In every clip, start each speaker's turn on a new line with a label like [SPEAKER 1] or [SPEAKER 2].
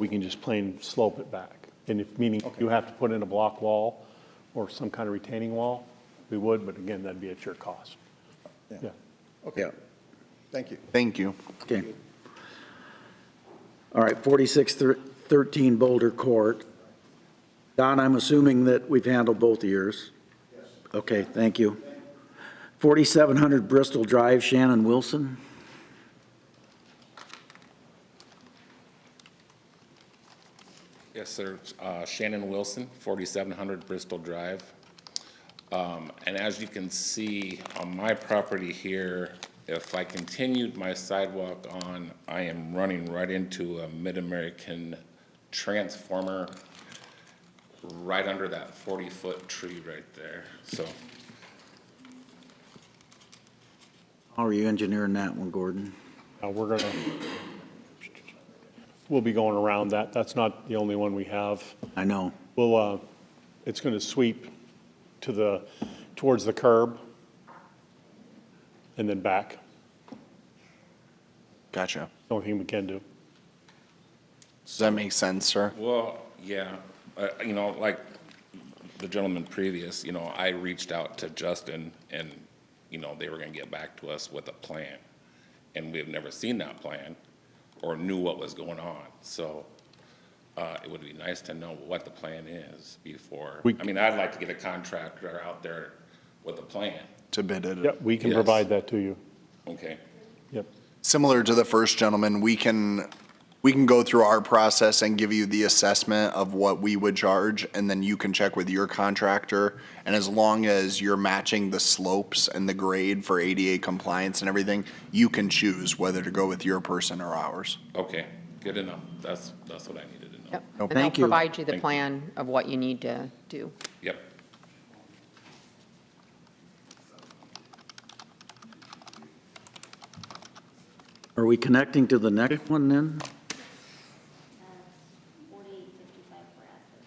[SPEAKER 1] we can just plain slope it back. And if, meaning you have to put in a block wall or some kind of retaining wall, we would, but again, that'd be at your cost. Yeah.
[SPEAKER 2] Yeah.
[SPEAKER 3] Thank you.
[SPEAKER 2] Thank you.
[SPEAKER 4] Okay. All right, 4613 Boulder Court. Don, I'm assuming that we've handled both of yours? Yes. Okay, thank you. 4700 Bristol Drive, Shannon Wilson.
[SPEAKER 5] Yes, sir. Uh, Shannon Wilson, 4700 Bristol Drive. Um, And as you can see on my property here, if I continued my sidewalk on, I am running right into a Mid-American transformer right under that 40-foot tree right there. So
[SPEAKER 4] How are you engineering that one, Gordon?
[SPEAKER 1] Now, we're gonna, we'll be going around that. That's not the only one we have.
[SPEAKER 4] I know.
[SPEAKER 1] We'll, uh, it's gonna sweep to the, towards the curb and then back.
[SPEAKER 2] Gotcha.
[SPEAKER 1] Only thing we can do.
[SPEAKER 2] Does that make sense, sir?
[SPEAKER 5] Well, yeah, uh, you know, like the gentleman previous, you know, I reached out to Justin and, you know, they were gonna get back to us with a plan. And we have never seen that plan or knew what was going on, so, uh, it would be nice to know what the plan is before.
[SPEAKER 1] We-
[SPEAKER 5] I mean, I'd like to get a contractor out there with a plan,
[SPEAKER 2] To bid it.
[SPEAKER 1] Yep, we can
[SPEAKER 5] Yes.
[SPEAKER 1] provide that to you.
[SPEAKER 5] okay?
[SPEAKER 1] Yep.
[SPEAKER 6] similar to the first gentleman, we can, we can go through our process and give you the assessment of what we would charge, and then you can check with your contractor. And as long as you're matching the slopes and the grade for ADA compliance and everything, you can choose whether to go with your person or ours.
[SPEAKER 5] Okay, good enough, that's, that's what I needed to know.
[SPEAKER 7] Yep.
[SPEAKER 2] No,
[SPEAKER 7] And they'll
[SPEAKER 4] thank you.
[SPEAKER 7] provide you the
[SPEAKER 5] Thank you.
[SPEAKER 7] plan of what you need to do.
[SPEAKER 5] Yep,
[SPEAKER 4] Are we connecting to the next one then?
[SPEAKER 8] forty-eight fifty-five for Aspen.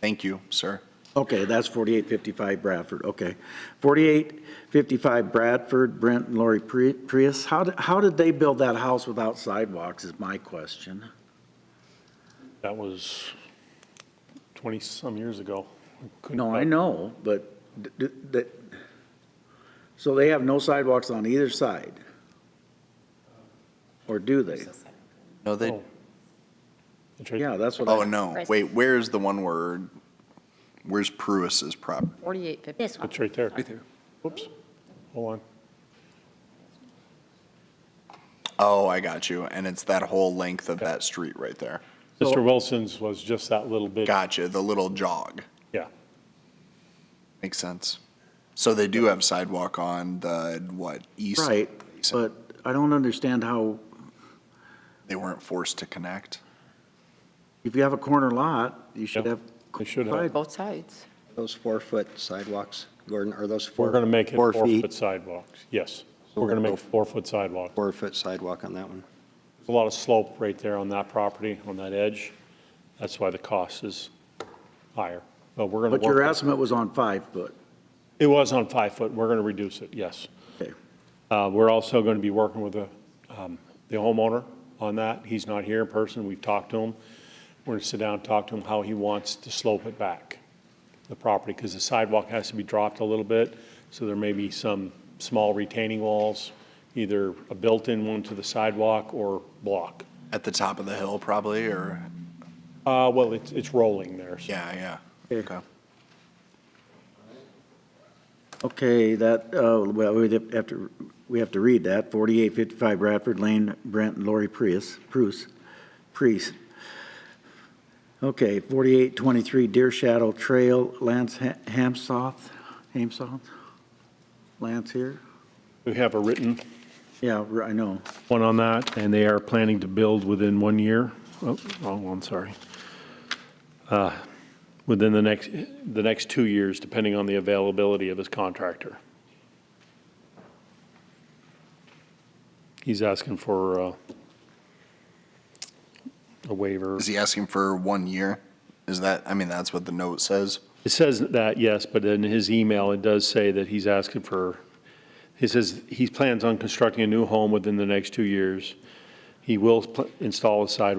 [SPEAKER 6] Thank you, sir.
[SPEAKER 4] Okay, that's 4855 Bradford, okay. 4855 Bradford, Brent and Lori Pri- Prius. How, did- how did they build that house without sidewalks is my question.
[SPEAKER 1] That was 20-some years ago. Couldn't-
[SPEAKER 4] No, I know, but d- d- that, so they have no sidewalks on either side? Or do they?
[SPEAKER 6] No, they.
[SPEAKER 1] Oh. It's right-
[SPEAKER 4] Yeah, that's what
[SPEAKER 6] Oh,
[SPEAKER 4] I,
[SPEAKER 6] no. Wait, where's the one where, where's Pruis's property?
[SPEAKER 7] 4850.
[SPEAKER 8] This one.
[SPEAKER 1] It's right there. Right there. Whoops. Hold on.
[SPEAKER 6] Oh, I got you. And it's that whole length of that street right there.
[SPEAKER 1] Mr. Wilson's was just that little bit.
[SPEAKER 6] Gotcha, the little jog.
[SPEAKER 1] Yeah.
[SPEAKER 6] Makes sense. So they do have sidewalk on the, what, east?
[SPEAKER 4] right, but I don't understand how,
[SPEAKER 6] They weren't forced to connect.
[SPEAKER 4] if you have a corner lot, you should
[SPEAKER 1] Yeah,
[SPEAKER 4] have.
[SPEAKER 1] they should have.
[SPEAKER 4] side-
[SPEAKER 7] Both sides.
[SPEAKER 3] Those four-foot sidewalks, Gordon, are those four?
[SPEAKER 1] We're going to make it
[SPEAKER 3] four feet,
[SPEAKER 1] four-foot sidewalks. Yes. We're going to make four-foot sidewalk.
[SPEAKER 3] Four-foot sidewalk on that one.
[SPEAKER 1] There's a lot of slope right there on that property, on that edge. That's why the cost is higher. But we're going
[SPEAKER 4] But
[SPEAKER 1] to
[SPEAKER 4] your
[SPEAKER 1] work.
[SPEAKER 4] estimate was on five foot,
[SPEAKER 1] It was on five foot. We're going to reduce it, yes.
[SPEAKER 4] okay.
[SPEAKER 1] Uh, We're also going to be working with the um, the homeowner on that. He's not here in person. We've talked to him. We're going to sit down and talk to him how he wants to slope it back, the property, because the sidewalk has to be dropped a little bit. So there may be some small retaining walls, either a built-in one to the sidewalk or block.
[SPEAKER 6] At the top of the hill probably, or,
[SPEAKER 1] Uh, Well, it's it's rolling there. so-
[SPEAKER 6] yeah, yeah.
[SPEAKER 4] Yeah.
[SPEAKER 6] Okay.
[SPEAKER 4] Okay, that, uh, well, we have to, we have to read that, 4855 Bradford Lane, Brent and Lori Prius, Prus, Priest. Okay, 4823 Deer Shadow Trail, Lance Ha- Hamsoth, Hamsoth? Lance here?
[SPEAKER 1] We have a written
[SPEAKER 4] Yeah, r- I know.
[SPEAKER 1] one on that, and they are planning to build within one year. Oh, wrong one, sorry. Uh, Within the next, the next two years, depending on the availability of his contractor. He's asking for uh, a waiver.
[SPEAKER 6] Is he asking for one year? Is that, I mean, that's what the note says.
[SPEAKER 1] It says that, yes, but in his email, it does say that he's asking for, he says he plans on constructing a new home within the next two years. He will pl- install a sidewalk